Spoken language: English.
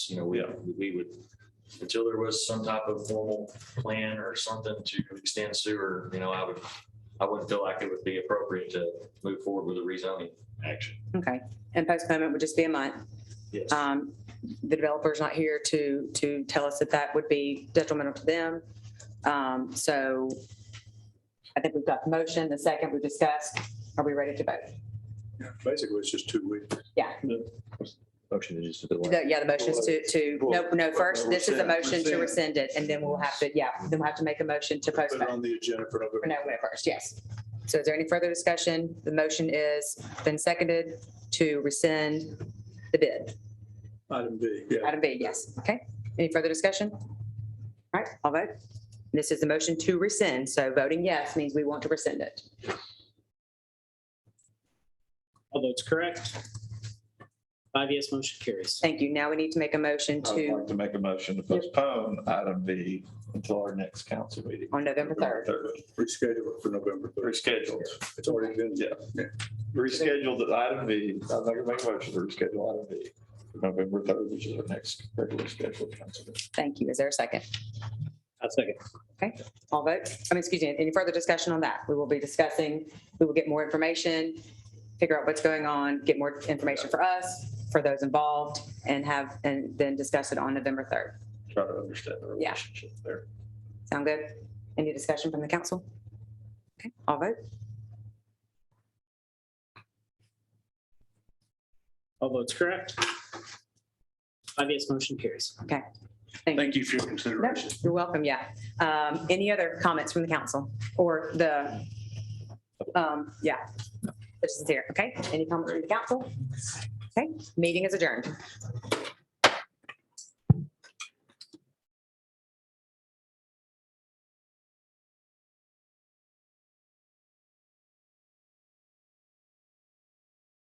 you know, we, Yeah. we would, until there was some type of formal plan or something to extend sewer, you know, I would, I wouldn't feel like it would be appropriate to move forward with a rezoning action. Okay, and postponement would just be a month. Yes. Um, The developer's not here to, to tell us that that would be detrimental to them. Um, So I think we've got the motion, the second we discussed. Are we ready to vote? Basically, it's just two weeks. Yeah, Motion to just. delay. The- yeah, the motion is to, to, no, no, first, this is a motion to rescind it, and then we'll have to, yeah, then we'll have to make a motion to Put it postpone. on the agenda for For November. November first, yes. So is there any further discussion? The motion is been seconded to rescind the bid. Item B, yeah. Item B, yes. Okay. Any further discussion? All right, I'll vote. This is the motion to rescind, so voting yes means we want to rescind it. All votes correct. Five yes, motion carries. Thank you. Now we need to make a motion I would to, like to make a motion to postpone item B until our next council meeting. on November third. Reschedule it for November. third. Rescheduled. It's already been, Yeah. Rescheduled item B. I'm not gonna make a motion to reschedule item B. for November third, which is our next regular scheduled council. meeting. Thank you. Is there a second? I'll second. All vote. I mean, excuse me, any further discussion on that? We will be discussing, we will get more information, figure out what's going on, get more information for us, for those involved, and have, and then discuss it on November third. Try to understand the Yeah. relationship there. Sound good? Any discussion from the council? Okay, all vote. All votes correct. Five yes, motion carries. Thank you for your No, consideration. You're welcome, yeah. Um, Any other comments from the council or the, um, yeah, this is here, okay? Any comments from the council? Okay, meeting is adjourned.